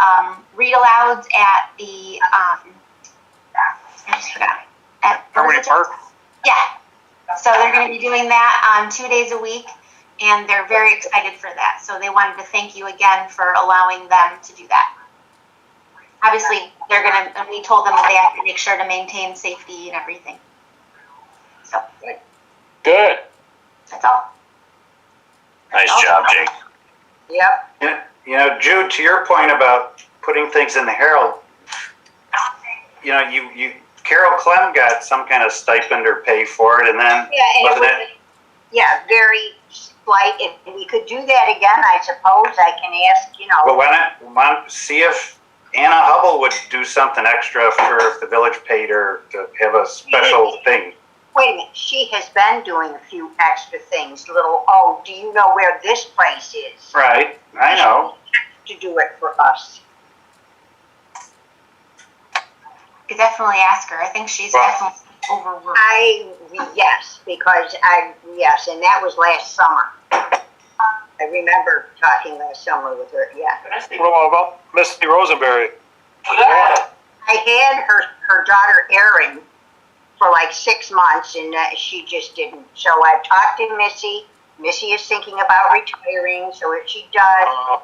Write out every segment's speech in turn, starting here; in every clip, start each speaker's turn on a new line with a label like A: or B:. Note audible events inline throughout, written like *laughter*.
A: um, read alouds at the, um, I just forgot. At
B: Harmony Park?
A: Yeah, so they're gonna be doing that, um, two days a week, and they're very excited for that. So they wanted to thank you again for allowing them to do that. Obviously, they're gonna, and we told them that they have to make sure to maintain safety and everything. So,
B: Good.
A: that's all.
B: Nice job, Jake.
C: Yep,
D: You know, Jude, to your point about putting things in the Herald, you know, you, you Carol Clem got some kind of stipend or pay for it, and then
C: yeah, and it
D: Wasn't
C: was, yeah, very slight, if we could do that again, I suppose, I can ask, you
D: but
C: know,
D: why not, why not see if Anna Hubble would do something extra for if the village paid her to have a special thing.
C: wait a minute, she has been doing a few extra things, little, oh, do you know where this place is?
D: Right, I know.
C: To do it for us.
A: You could definitely ask her. I think she's
D: Well-
A: definitely overworked.
C: I, yes, because I, yes, and that was last summer. I remember talking last summer with her, yeah.
E: What about Misty Rosenberry?
C: I had her, her daughter Erin for like six months and uh, she just didn't. So I talked to Missy. Missy is thinking about retiring, so if she does,
E: Uh,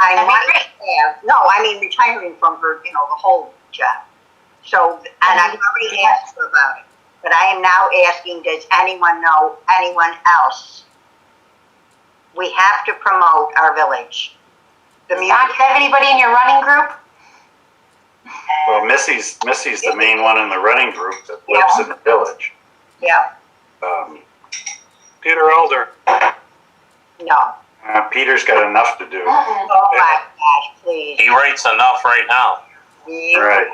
C: I
A: That'd be
C: might have, no, I mean retiring from her, you know, the whole job. So, and I've already asked her about it, but I am now asking, does anyone know anyone else? We have to promote our village. The
A: Don, do you
C: music,
A: have anybody in your running group?
D: Well, Missy's, Missy's the main one in the running group that lives in the village.
C: yeah,
D: Um,
E: Peter Elder.
C: no.
D: uh, Peter's got enough to do.
C: Oh my gosh, please.
F: He writes enough right now.
D: Right.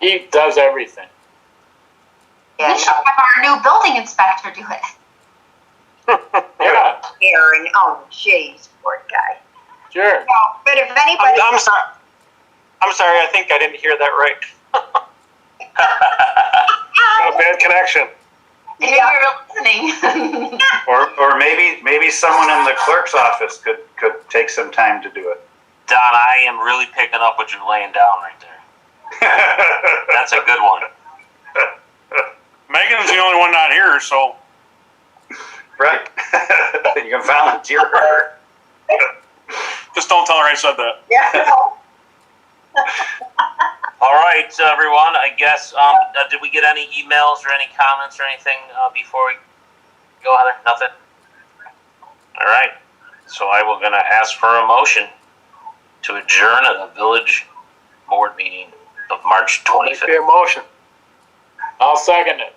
B: He does everything.
C: Yeah,
A: We should have our new building inspector do it.
B: Yeah,
C: Aaron, oh, jeez, poor guy.
B: sure.
C: No, But if
E: I'm,
C: anybody,
E: I'm sorry. I'm sorry. I think I didn't hear that right. Got a bad connection.
A: Maybe
C: Yeah.
A: we were listening. *laughs*
D: Or, or maybe, maybe someone in the clerk's office could, could take some time to do
F: Don, I am really picking up what you're laying down right there.
D: it.
F: That's a good one.
E: Megan's the only one not here, so
D: *laughs* Right. *laughs* you can volunteer her.
E: just don't tell her I said that.
C: *laughs* yeah,
F: All right, uh, everyone. I guess um, uh, did we get any emails or any comments or anything uh, before we go, Heather? Nothing. All right. So I will gonna ask for a motion to adjourn the village board meeting of March
B: I'll make
F: 25th.
B: the motion. I'll second it.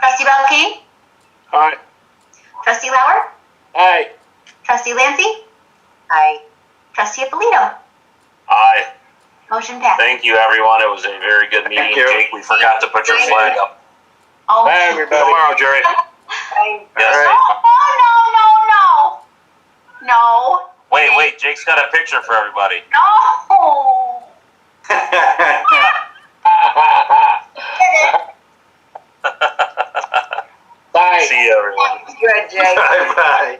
A: Trustee Belkane?
B: All right.
A: Trustee Lauer?
B: Hey,
A: Trustee Lancy?
C: I,
A: Trustee Apolito?
F: Aye.
A: Motion passed.
F: Thank you, everyone. It was a very good meeting,
D: Thank you.
F: Jake. We forgot to put your flag up.
A: Oh,
B: bye, everybody.
E: Tomorrow, Jerry.
C: I,
F: Yes.
A: Oh, no, no, no, no. No,
F: Wait, wait. Jake's got a picture for everybody.
A: no.
B: Ha, ha, ha. *laughs* Bye.
F: See you, everyone.
C: good, Jake.
D: *laughs* Bye-bye.
A: Ah.